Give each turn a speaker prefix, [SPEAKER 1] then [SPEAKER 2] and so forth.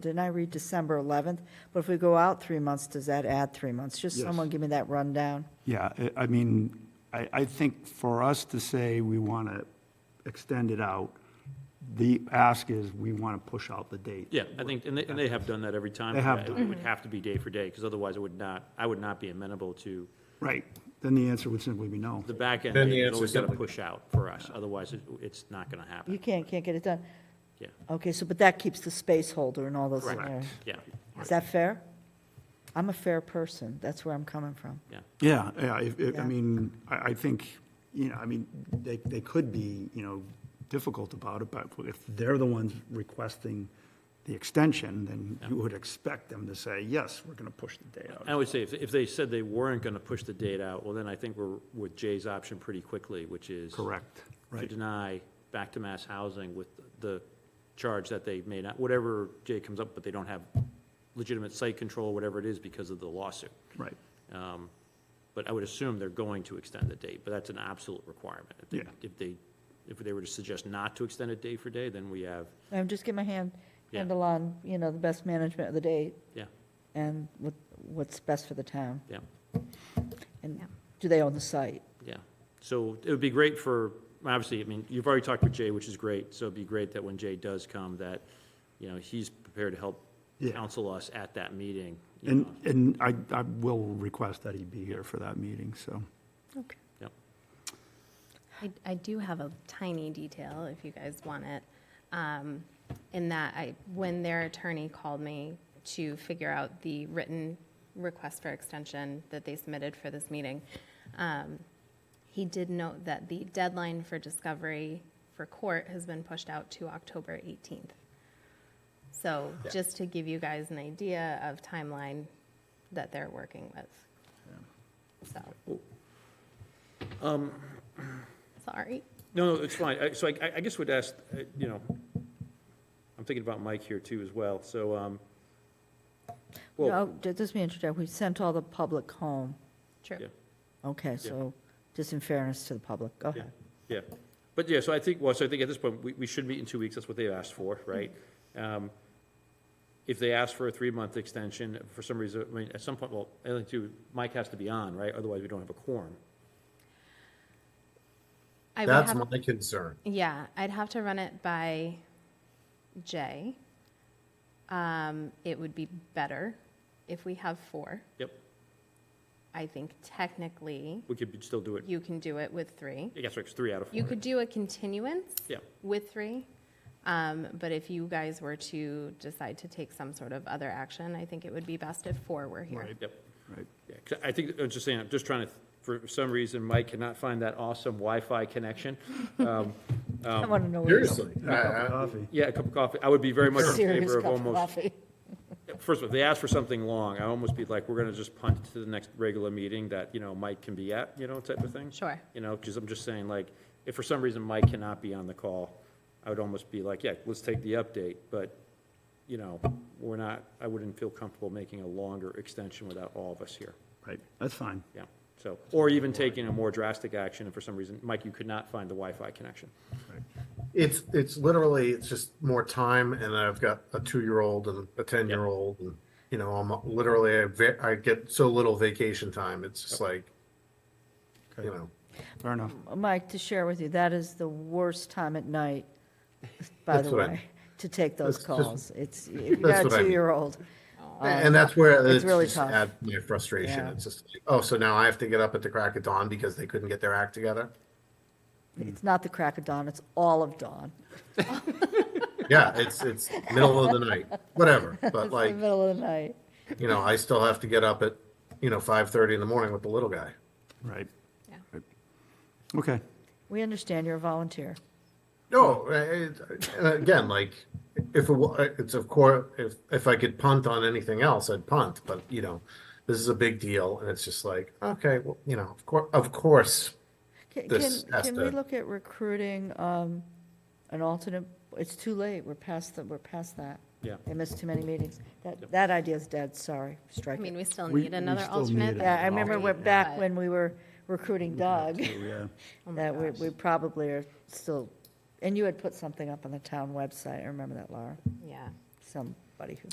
[SPEAKER 1] didn't I read December 11th? But if we go out three months, does that add three months? Just
[SPEAKER 2] Yes.
[SPEAKER 1] someone give me that rundown.
[SPEAKER 2] Yeah, I- I mean, I, I think for us to say we want to extend it out, the ask is we want to push out the date.
[SPEAKER 3] Yeah, I think, and they, and they have done that every time.
[SPEAKER 2] They have
[SPEAKER 3] It
[SPEAKER 2] done.
[SPEAKER 3] would
[SPEAKER 1] Mm-hmm.
[SPEAKER 3] have to be day for day, because otherwise it would not, I would not be amenable to
[SPEAKER 2] Right, then the answer would simply be no.
[SPEAKER 3] the back end.
[SPEAKER 4] Then the
[SPEAKER 3] date. It's
[SPEAKER 4] answer's
[SPEAKER 3] always got to
[SPEAKER 4] simply-
[SPEAKER 3] push out for us, otherwise it- it's not going to
[SPEAKER 1] You
[SPEAKER 3] happen.
[SPEAKER 1] can't, can't get it done.
[SPEAKER 3] Yeah,
[SPEAKER 1] Okay, so, but that keeps the space holder and all those in
[SPEAKER 3] Correct.
[SPEAKER 1] there.
[SPEAKER 3] yeah,
[SPEAKER 1] Is that fair? I'm a fair person. That's where I'm coming from.
[SPEAKER 3] yeah.
[SPEAKER 2] Yeah, yeah, if- if- I
[SPEAKER 1] Yeah.
[SPEAKER 2] mean, I, I think, you know, I mean, they, they could be, you know, difficult about it, but if they're the ones requesting the extension, then you would expect them to say, yes, we're going to push the date
[SPEAKER 3] I
[SPEAKER 2] out.
[SPEAKER 3] would say, if, if they said they weren't going to push the date out, well, then I think we're with Jay's option pretty quickly, which is.
[SPEAKER 2] Correct,
[SPEAKER 3] To
[SPEAKER 2] right.
[SPEAKER 3] deny back to mass housing with the charge that they may not, whatever Jay comes up, but they don't have legitimate site control, whatever it is, because of the lawsuit.
[SPEAKER 2] Right,
[SPEAKER 3] Um, But I would assume they're going to extend the date, but that's an absolute requirement. If they,
[SPEAKER 2] Yeah.
[SPEAKER 3] if they, if they were to suggest not to extend it day for day, then we have,
[SPEAKER 1] I'm just getting my hand,
[SPEAKER 3] Yeah.
[SPEAKER 1] handle on, you know, the best management of the date
[SPEAKER 3] yeah,
[SPEAKER 1] and what, what's best for the town.
[SPEAKER 3] yeah,
[SPEAKER 1] And
[SPEAKER 5] Yeah.
[SPEAKER 1] do they own the site?
[SPEAKER 3] yeah. So it would be great for, obviously, I mean, you've already talked with Jay, which is great, so it'd be great that when Jay does come, that, you know, he's prepared to help
[SPEAKER 2] Yeah.
[SPEAKER 3] counsel us at that meeting. you
[SPEAKER 2] and,
[SPEAKER 3] know.
[SPEAKER 2] and I, I will request that he be here for that meeting, so.
[SPEAKER 1] Okay.
[SPEAKER 3] Yep.
[SPEAKER 5] I, I do have a tiny detail if you guys want it. Um, in that I, when their attorney called me to figure out the written request for extension that they submitted for this meeting, um, he did note that the deadline for discovery for court has been pushed out to October 18th. So just to give you guys an idea of timeline that they're working with. So. Sorry.
[SPEAKER 3] No, no, it's fine. I- So I, I- I guess would ask, uh, you know, I'm thinking about Mike here too as well, so, um, well,
[SPEAKER 1] No, ju- just me interject, we sent all the public home.
[SPEAKER 5] True.
[SPEAKER 3] yeah.
[SPEAKER 1] Okay, so, just in fairness to the public, go
[SPEAKER 3] Yeah,
[SPEAKER 1] ahead.
[SPEAKER 3] yeah. But yeah, so I think, well, so I think at this point, we, we should meet in two weeks, that's what they've asked for, right? Um, If they ask for a three-month extension, for some reason, I mean, at some point, well, I think too, Mike has to be on, right? Otherwise, we don't have a quorum.
[SPEAKER 5] I would
[SPEAKER 4] That's
[SPEAKER 5] have,
[SPEAKER 4] my concern.
[SPEAKER 5] yeah, I'd have to run it by Jay. Um, it would be better if we have four.
[SPEAKER 3] Yep,
[SPEAKER 5] I think technically
[SPEAKER 3] we could still do it,
[SPEAKER 5] you can do it with three.
[SPEAKER 3] I guess it's three out of four.
[SPEAKER 5] You could do a continuance
[SPEAKER 3] Yeah,
[SPEAKER 5] with three. Um, but if you guys were to decide to take some sort of other action, I think it would be best if four were here.
[SPEAKER 2] Right.
[SPEAKER 3] yep.
[SPEAKER 2] Right.
[SPEAKER 3] Yeah, 'cause I think, I'm just saying, I'm just trying to, for some reason, Mike cannot find that awesome Wi-Fi connection. Um,
[SPEAKER 1] I want to know. where you're going.
[SPEAKER 4] Seriously. I- I-
[SPEAKER 2] Coffee.
[SPEAKER 3] Yeah, a cup of coffee, I would be very much in
[SPEAKER 1] Serious
[SPEAKER 3] favor of
[SPEAKER 1] cup of
[SPEAKER 3] almost
[SPEAKER 1] coffee.
[SPEAKER 3] First of all, if they ask for something long, I almost be like, we're gonna just punt it to the next regular meeting that, you know, Mike can be at, you know, type of thing.
[SPEAKER 5] Sure.
[SPEAKER 3] You know, because I'm just saying, like, if for some reason Mike cannot be on the call, I would almost be like, yeah, let's take the update, but, you know, we're not, I wouldn't feel comfortable making a longer extension without all of us here,
[SPEAKER 2] Right, that's fine.
[SPEAKER 3] yeah, so, or even taking a more drastic action, if for some reason, Mike, you could not find the Wi-Fi connection.
[SPEAKER 4] It's, it's literally, it's just more time and I've got a two-year-old and a 10-year-old and, you know, I'm literally, I ve- I get so little vacation time. It's just like, you know,
[SPEAKER 2] Fair enough.
[SPEAKER 1] Mike, to share with you, that is the worst time at night, by the
[SPEAKER 4] That's what I-
[SPEAKER 1] way, to take those
[SPEAKER 4] That's just-
[SPEAKER 1] calls. It's, if you
[SPEAKER 4] That's
[SPEAKER 1] got a
[SPEAKER 4] what I mean.
[SPEAKER 1] two-year-old.
[SPEAKER 4] and that's where
[SPEAKER 1] it's
[SPEAKER 4] it's
[SPEAKER 1] really
[SPEAKER 4] just
[SPEAKER 1] tough.
[SPEAKER 4] add my frustration.
[SPEAKER 1] Yeah.
[SPEAKER 4] It's just like, oh, so now I have to get up at the crack of dawn because they couldn't get their act together?
[SPEAKER 1] Um, It's not the crack of dawn, it's all of dawn.
[SPEAKER 4] Yeah, it's, it's middle of the night, whatever. But
[SPEAKER 1] It's the
[SPEAKER 4] like,
[SPEAKER 1] middle of the night.
[SPEAKER 4] you know, I still have to get up at, you know, 5:30 in the morning with the little guy.
[SPEAKER 2] Right.
[SPEAKER 5] Yeah.
[SPEAKER 2] Right. Okay,
[SPEAKER 1] We understand you're a volunteer.
[SPEAKER 4] No, it, and again, like if it, wa- it's of course if if I could punt on anything else, I'd punt. But you know, this is a big deal, and it's just like okay, well, you know, of course, of course,
[SPEAKER 1] Can,
[SPEAKER 4] This
[SPEAKER 1] can-
[SPEAKER 4] has
[SPEAKER 1] can we
[SPEAKER 4] to-
[SPEAKER 1] look at recruiting um, an alternate? It's too late, we're past, the- we're past that.
[SPEAKER 3] Yeah.
[SPEAKER 1] I missed too many meetings. That, that idea's dead, sorry,
[SPEAKER 5] I
[SPEAKER 1] strike
[SPEAKER 5] mean,
[SPEAKER 1] it.
[SPEAKER 5] we still
[SPEAKER 2] We-
[SPEAKER 5] need
[SPEAKER 2] we
[SPEAKER 5] another
[SPEAKER 2] still need
[SPEAKER 5] alternate.
[SPEAKER 2] it.
[SPEAKER 1] Yeah, I remember we're
[SPEAKER 5] But-
[SPEAKER 1] back when we were recruiting Doug,
[SPEAKER 2] yeah.
[SPEAKER 1] that we, we probably are still, and you had put something up on the town website, I remember that, Laura,
[SPEAKER 5] Yeah.
[SPEAKER 1] somebody who